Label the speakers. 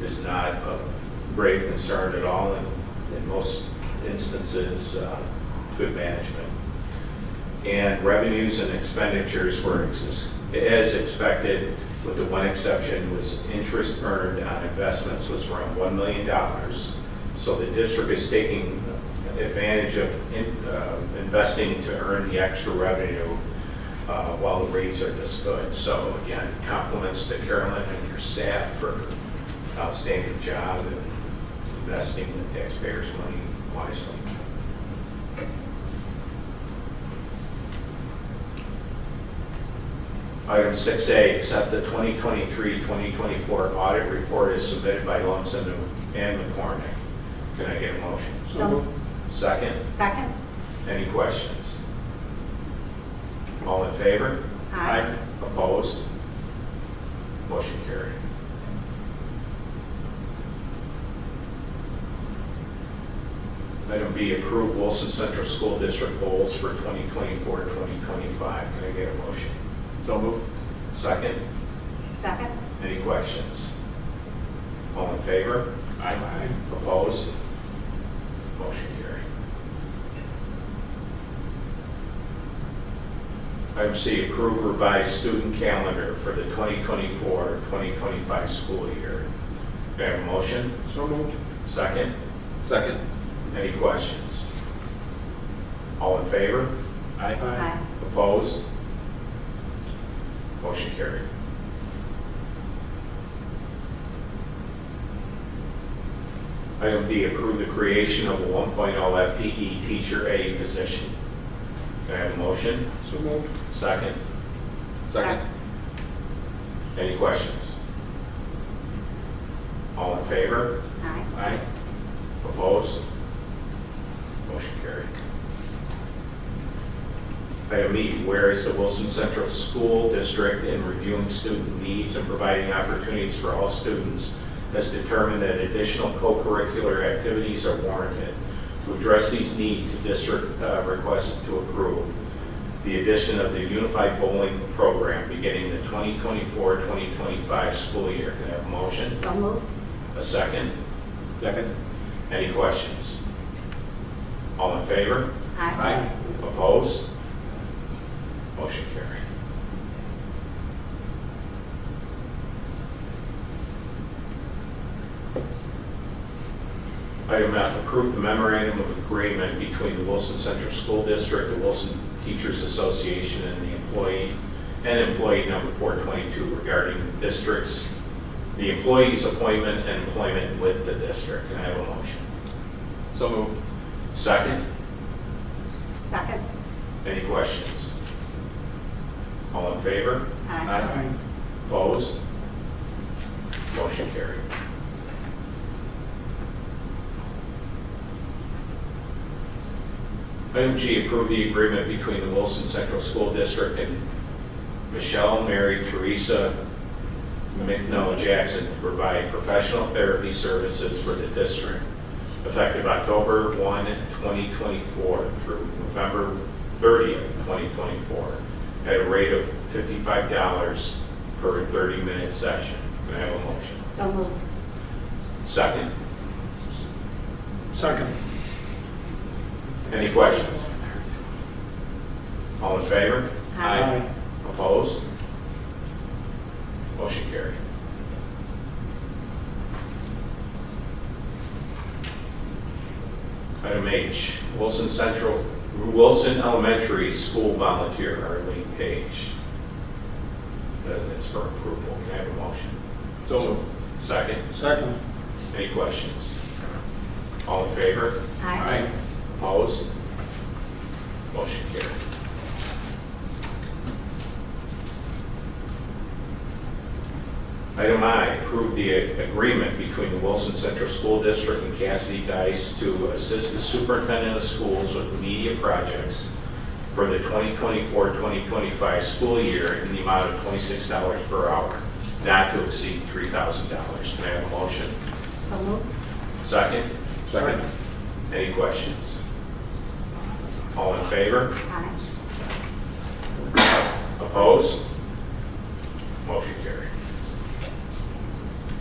Speaker 1: is not a grave concern at all, and in most instances, uh, good management. And revenues and expenditures were ex- as expected, with the one exception was interest earned on investments was around $1 million. So the district is taking advantage of in- uh, investing to earn the extra revenue uh, while the rates are this good. So again, compliments to Carolyn and your staff for outstanding job in investing the taxpayers' money wisely. Item 6A, accept the 2023-2024 audit report as submitted by Lumsden and McCormick. Can I get a motion?
Speaker 2: So moved.
Speaker 1: Second,
Speaker 2: Second?
Speaker 1: any questions? All in favor?
Speaker 2: Aye.
Speaker 1: Opposed? Motion carried. Item B, approve Wilson Central School District goals for 2024, 2025. Can I get a motion? So moved. Second,
Speaker 2: Second?
Speaker 1: any questions? All in favor? Aye. Opposed? Motion carried. Item C, approve revised student calendar for the 2024-2025 school year. Do I have a motion?
Speaker 3: So moved.
Speaker 1: Second?
Speaker 3: Second.
Speaker 1: Any questions? All in favor?
Speaker 2: Aye.
Speaker 1: Opposed? Motion carried. Item D, approve the creation of a 1.0 FTE E teacher aide position. Can I have a motion?
Speaker 3: So moved.
Speaker 1: Second.
Speaker 2: Second.
Speaker 1: Any questions? All in favor?
Speaker 2: Aye.
Speaker 1: Aye. Opposed? Motion carried. Item E, whereas the Wilson Central School District in reviewing student needs and providing opportunities for all students has determined that additional co-curricular activities are warranted. To address these needs, the district uh, requests to approve the addition of the Unified Bowling Program beginning the 2024-2025 school year. Can I have a motion?
Speaker 2: So moved.
Speaker 1: A second? Second. Any questions? All in favor?
Speaker 2: Aye.
Speaker 1: Opposed? Motion carried. Item F, approve the memorandum of agreement between the Wilson Central School District, the Wilson Teachers Association, and the employee, and employee number 422 regarding the district's, the employee's appointment and employment with the district. Can I have a motion?
Speaker 3: So moved.
Speaker 1: Second?
Speaker 2: Second?
Speaker 1: Any questions? All in favor?
Speaker 2: Aye.
Speaker 1: Opposed? Motion carried. Item G, approve the agreement between the Wilson Central School District and Michelle Mary Teresa McNoah Jackson to provide professional therapy services for the district effective October 1, 2024 through November 30th, 2024, at a rate of $55 per 30-minute session. Can I have a motion?
Speaker 2: So moved.
Speaker 1: Second,
Speaker 3: Second.
Speaker 1: any questions? All in favor?
Speaker 2: Aye.
Speaker 1: Opposed? Motion carried. Item H, Wilson Central, Wilson Elementary School Volunteer Arlene Page. Uh, That's for approval. Can I have a motion?
Speaker 3: So moved.
Speaker 1: Second,
Speaker 3: Second.
Speaker 1: any questions? All in favor?
Speaker 2: Aye.
Speaker 1: Opposed? Motion carried. Item I, approve the agreement between the Wilson Central School District and Cassidy Dice to assist the superintendent of schools with media projects for the 2024-2025 school year in the amount of $26 per hour, not to exceed $3,000. Can I have a motion?
Speaker 2: So moved.
Speaker 1: Second?
Speaker 3: Second.
Speaker 1: Any questions? All in favor?
Speaker 2: Aye.
Speaker 1: Opposed? Motion carried.